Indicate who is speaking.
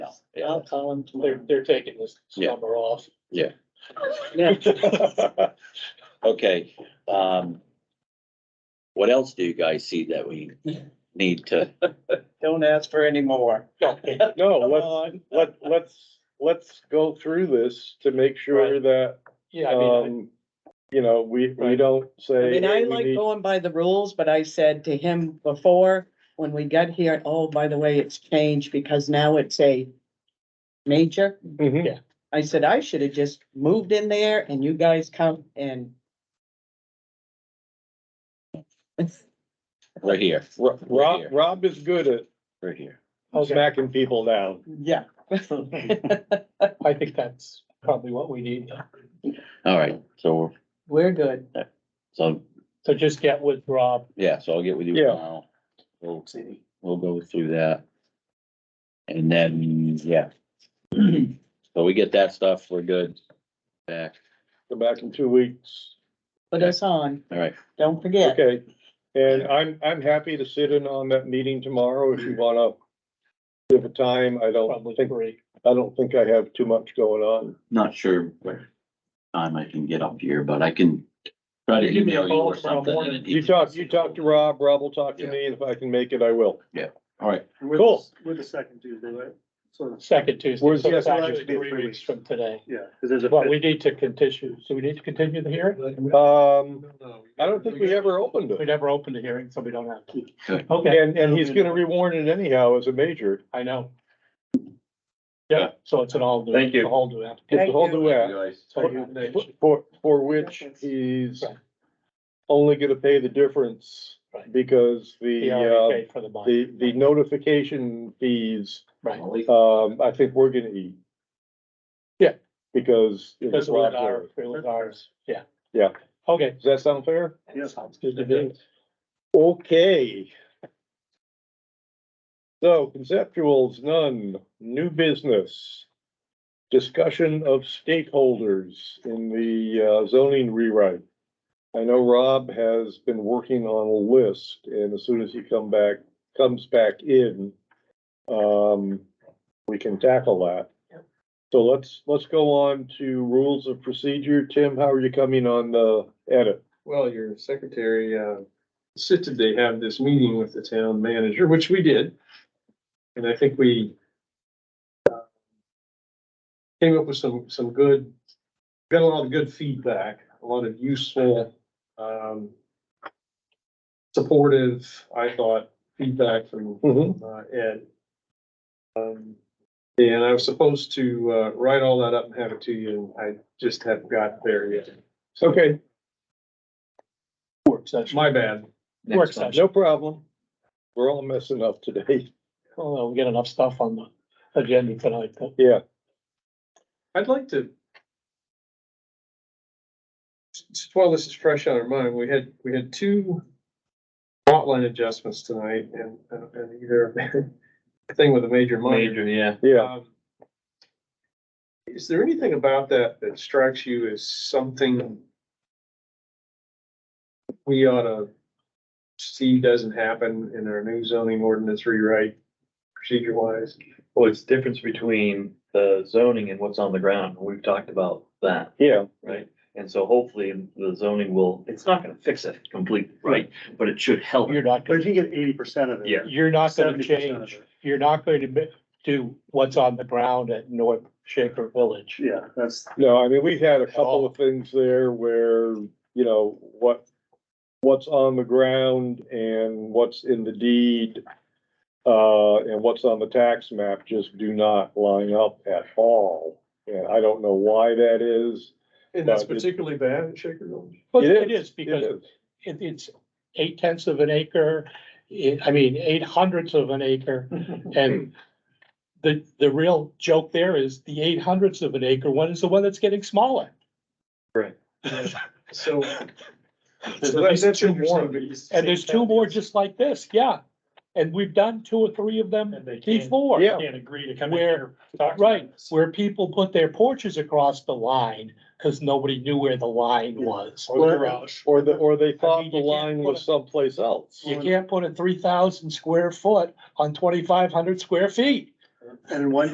Speaker 1: I'll call him
Speaker 2: They're,
Speaker 1: tomorrow.
Speaker 2: they're taking this
Speaker 3: Yeah.
Speaker 2: summer off.
Speaker 1: Yeah,
Speaker 3: Okay, um. What else do you guys see that we need to,
Speaker 1: don't ask for any more.
Speaker 4: No,
Speaker 1: Come
Speaker 4: let's,
Speaker 1: on.
Speaker 4: let, let's, let's go through this to make sure
Speaker 2: Right.
Speaker 4: that,
Speaker 2: Yeah, I mean,
Speaker 4: um, you know, we, we
Speaker 2: Right.
Speaker 4: don't
Speaker 1: I
Speaker 4: say.
Speaker 1: mean, I
Speaker 4: "Hey, we
Speaker 1: like
Speaker 4: need-"
Speaker 1: going by the rules, but I said to him before, when we got here, oh, by the way, it's changed because now it's a major.
Speaker 4: Mhm.
Speaker 1: I said, I should have just moved in there and you guys come and.
Speaker 3: right here,
Speaker 4: Ro-
Speaker 3: Right
Speaker 4: Rob,
Speaker 3: here.
Speaker 4: Rob is good at
Speaker 3: right here.
Speaker 2: Okay.
Speaker 4: smacking people down.
Speaker 1: Yeah.
Speaker 4: Um,
Speaker 2: I think that's probably what we need.
Speaker 3: All right, so, we're-
Speaker 1: We're good.
Speaker 3: so,
Speaker 2: So just get with Rob.
Speaker 3: yeah, so I'll get with you
Speaker 4: Yeah.
Speaker 3: now. We'll, we'll go through that. And then, yeah. So we get that stuff, we're good. Back,
Speaker 4: Come back in two weeks.
Speaker 1: Put us on.
Speaker 3: all right,
Speaker 1: Don't forget.
Speaker 4: Okay. And I'm, I'm happy to sit in on that meeting tomorrow if you wanna give a time. I don't
Speaker 2: Probably
Speaker 4: think,
Speaker 2: three.
Speaker 4: I don't think I have too much going on.
Speaker 3: not sure where time I can get up here, but I can try to
Speaker 2: You give me a
Speaker 3: email you
Speaker 2: call
Speaker 3: or
Speaker 2: tomorrow
Speaker 3: something.
Speaker 2: morning.
Speaker 3: and
Speaker 4: You talk, you talk to Rob, Rob will talk to me, and if I can make it, I will.
Speaker 3: All right,
Speaker 5: With
Speaker 4: Cool.
Speaker 5: this- With the second Tuesday, right? So,
Speaker 2: Second Tuesday,
Speaker 4: Where's-
Speaker 2: so
Speaker 4: yeah,
Speaker 2: it's
Speaker 4: so
Speaker 2: actually
Speaker 5: that'd be
Speaker 2: three
Speaker 5: three
Speaker 2: weeks
Speaker 5: weeks.
Speaker 2: from today.
Speaker 5: yeah, because there's a.
Speaker 2: But
Speaker 5: fifth-
Speaker 2: we need to continue, so we need to continue the hearing?
Speaker 4: Um, I don't think we ever opened
Speaker 2: We
Speaker 4: it.
Speaker 2: never opened the hearing, so we don't have to.
Speaker 3: Good.
Speaker 2: Okay,
Speaker 4: And, and he's gonna rewarn it anyhow as a major.
Speaker 2: I know. Yeah, so it's an all new.
Speaker 4: Thank
Speaker 2: it's
Speaker 4: you.
Speaker 2: a All new app.
Speaker 4: It's a whole new app.
Speaker 3: guys.
Speaker 2: So you-
Speaker 4: For, for which he's
Speaker 2: Right.
Speaker 4: only gonna pay the difference
Speaker 2: Right.
Speaker 4: because
Speaker 2: He
Speaker 4: the,
Speaker 2: already
Speaker 4: uh,
Speaker 2: paid for the bond.
Speaker 4: the, the notification fees,
Speaker 2: Right,
Speaker 4: um, I think we're gonna eat.
Speaker 2: Yeah.
Speaker 4: Because. it was
Speaker 2: because it was
Speaker 4: Rob
Speaker 2: our,
Speaker 4: Lewis.
Speaker 2: it was ours, yeah.
Speaker 4: Yeah.
Speaker 2: Okay.
Speaker 4: Does that sound fair?
Speaker 5: Yeah.
Speaker 2: Sounds good to me.
Speaker 4: Okay. So conceptuals, none, new business. Discussion of stakeholders in the uh, zoning rewrite. I know Rob has been working on a list and as soon as he come back, comes back in, um, we can tackle that. So let's, let's go on to rules of procedure. Tim, how are you coming on the edit?
Speaker 6: Well, your secretary uh, insisted they have this meeting with the town manager, which we did. And I think we uh, came up with some, some good, got a lot of good feedback, a lot of useful, um, supportive, I thought, feedback from
Speaker 4: Mm-hmm.
Speaker 6: uh, Ed. Um, And I was supposed to uh, write all that up and have it to you, and I just haven't got there yet.
Speaker 4: Okay,
Speaker 2: Work session.
Speaker 6: My bad.
Speaker 2: Work session.
Speaker 4: No problem. We're all messing up today.
Speaker 2: Well, we get enough stuff on the agenda tonight. but-
Speaker 4: Yeah,
Speaker 6: I'd like to. Just while this is fresh on our mind, we had, we had two lot line adjustments tonight and, uh, and either thing with a major minor.
Speaker 3: yeah.
Speaker 4: yeah.
Speaker 6: Um, Is there anything about that that strikes you as something we ought to see doesn't happen in our new zoning ordinance rewrite procedure wise?
Speaker 7: Well, it's the difference between the zoning and what's on the ground. We've talked about that,
Speaker 4: Yeah,
Speaker 7: right? And so hopefully the zoning will, it's not gonna fix it completely, right? But it should help.
Speaker 2: You're not,
Speaker 5: But
Speaker 2: gonna
Speaker 5: if you get eighty percent of it.
Speaker 7: Yeah.
Speaker 2: you're not gonna
Speaker 5: 70% of
Speaker 2: change,
Speaker 5: it.
Speaker 2: you're not going to mi- do what's on the ground at North Shaker Village.
Speaker 5: Yeah, that's,
Speaker 4: no, I mean, we've had a couple of things there where, you know, what, what's on the ground and what's in the deed, uh, and what's on the tax map just do not line up at all. And I don't know why that is.
Speaker 6: And that's
Speaker 4: But it-
Speaker 6: particularly bad at Shaker Village.
Speaker 2: But
Speaker 4: It
Speaker 2: it
Speaker 4: is,
Speaker 2: is because it, it's eight tenths of an acre, i- I mean, eight hundredths of an acre. And the, the real joke there is the eight hundredths of an acre one is the one that's getting smaller.
Speaker 6: So.
Speaker 2: There's
Speaker 6: So
Speaker 2: at
Speaker 6: that-
Speaker 2: least
Speaker 6: that's
Speaker 2: two
Speaker 6: interesting.
Speaker 2: more. And there's two more just like this, yeah. And we've done two or three of them
Speaker 5: and they can't,
Speaker 2: before.
Speaker 4: Yeah.
Speaker 5: can't agree to come in
Speaker 2: Where-
Speaker 5: here. and talk to
Speaker 2: Right,
Speaker 5: us.
Speaker 2: where people put their porches across the line because nobody knew where the line was.
Speaker 4: Or the
Speaker 5: garage.
Speaker 4: Or the, or they
Speaker 2: I
Speaker 4: thought
Speaker 2: mean,
Speaker 4: the
Speaker 2: you can't
Speaker 4: line was
Speaker 2: put a-
Speaker 4: someplace else.
Speaker 2: You can't put a three thousand square foot on twenty-five hundred square feet.
Speaker 5: And in one